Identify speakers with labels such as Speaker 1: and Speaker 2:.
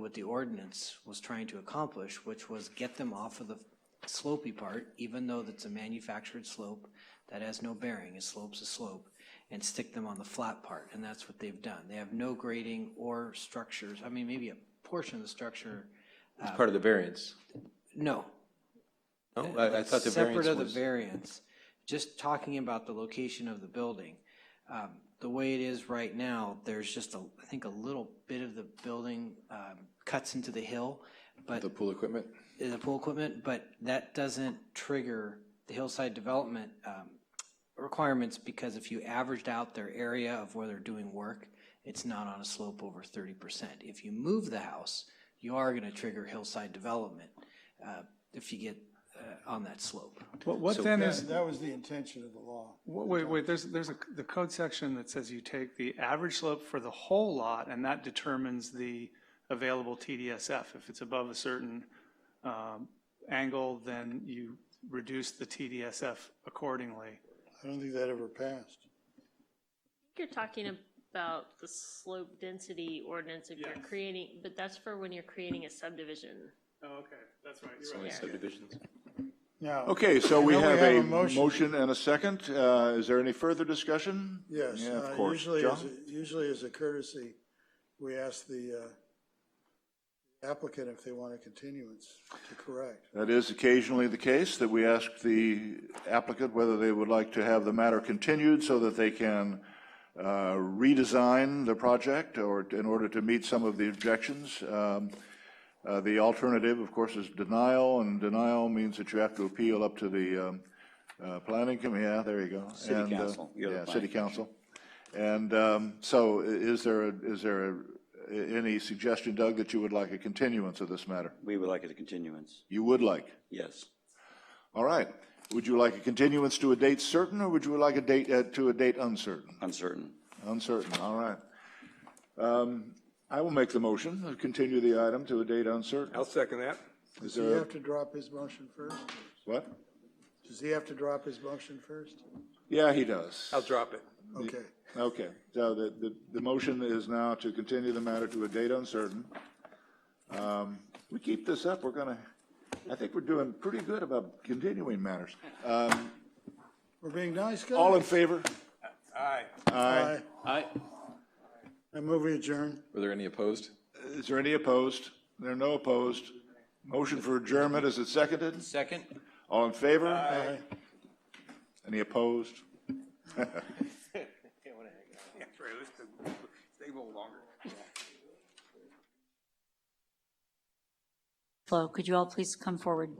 Speaker 1: what the ordinance was trying to accomplish, which was get them off of the slopey part, even though that's a manufactured slope that has no bearing, it slopes a slope, and stick them on the flat part, and that's what they've done. They have no grading or structures, I mean, maybe a portion of the structure, Uh,
Speaker 2: It's part of the variance.
Speaker 1: no.
Speaker 2: No, I, I thought the variance
Speaker 1: uh, Separate of the
Speaker 2: was,
Speaker 1: variance, just talking about the location of the building. um, The way it is right now, there's just a, I think, a little bit of the building um, cuts into the hill, but
Speaker 2: the pool equipment.
Speaker 1: the pool equipment, but that doesn't trigger the hillside development um, requirements because if you averaged out their area of where they're doing work, it's not on a slope over thirty percent. If you move the house, you are going to trigger hillside development uh, if you get uh, on that slope.
Speaker 3: What, what then is,
Speaker 4: And that was the intention of the law.
Speaker 3: wha- wait, wait, there's, there's a, the code section that says you take the average slope for the whole lot, and that determines the available TDSF. If it's above a certain um, angle, then you reduce the TDSF accordingly.
Speaker 4: I don't think that ever passed.
Speaker 5: You're talking about the slope density ordinance if you're
Speaker 3: Yes.
Speaker 5: creating, but that's for when you're creating a subdivision.
Speaker 3: Oh, okay, that's right,
Speaker 2: Only subdivisions.
Speaker 4: Now.
Speaker 6: Okay, so we
Speaker 4: now
Speaker 6: have a motion and a second. Uh, Is there any further discussion?
Speaker 4: Yes.
Speaker 6: Yeah,
Speaker 4: uh,
Speaker 6: of course.
Speaker 4: Usually, as,
Speaker 6: John?
Speaker 4: a- usually as a courtesy, we ask the uh, applicant if they want a continuance to correct.
Speaker 6: That is occasionally the case, that we ask the applicant whether they would like to have the matter continued so that they can uh, redesign the project or in order to meet some of the objections. Um, uh, The alternative, of course, is denial, and denial means that you have to appeal up to the um, uh, planning committee, yeah, there you go.
Speaker 7: City
Speaker 6: And, uh,
Speaker 7: council, you're the
Speaker 6: Yeah, city
Speaker 7: planning
Speaker 6: council. And um, so i- is there, a- is there a- any suggestion, Doug, that you would like a continuance of this matter?
Speaker 7: We would like it a continuance,
Speaker 6: You would like?
Speaker 7: yes.
Speaker 6: All right. Would you like a continuance to a date certain, or would you like a date, uh, to a date uncertain?
Speaker 7: Uncertain.
Speaker 6: Uncertain, all right. Um, I will make the motion, to continue the item to a date uncertain.
Speaker 8: I'll second that.
Speaker 6: Is
Speaker 4: Does he
Speaker 6: there, a-
Speaker 4: have to drop his motion first?
Speaker 6: what?
Speaker 4: Does he have to drop his motion first?
Speaker 6: Yeah, he does.
Speaker 8: I'll drop it.
Speaker 4: Okay.
Speaker 6: Okay, so the, the, the motion is now to continue the matter to a date uncertain. Um, We keep this up, we're gonna, I think we're doing pretty good about continuing matters. Um,
Speaker 4: We're being nice, guys.
Speaker 6: All in favor?
Speaker 8: Aye.
Speaker 6: Aye.
Speaker 4: Aye. I move we adjourn.
Speaker 2: Were there any opposed?
Speaker 6: Is there any opposed? There are no opposed. Motion for adjournment, is it seconded?
Speaker 1: Second?
Speaker 6: All in favor?
Speaker 4: Aye.
Speaker 6: Any opposed?
Speaker 8: That's right, let's stay a little longer.
Speaker 9: Flo, could you all please come forward?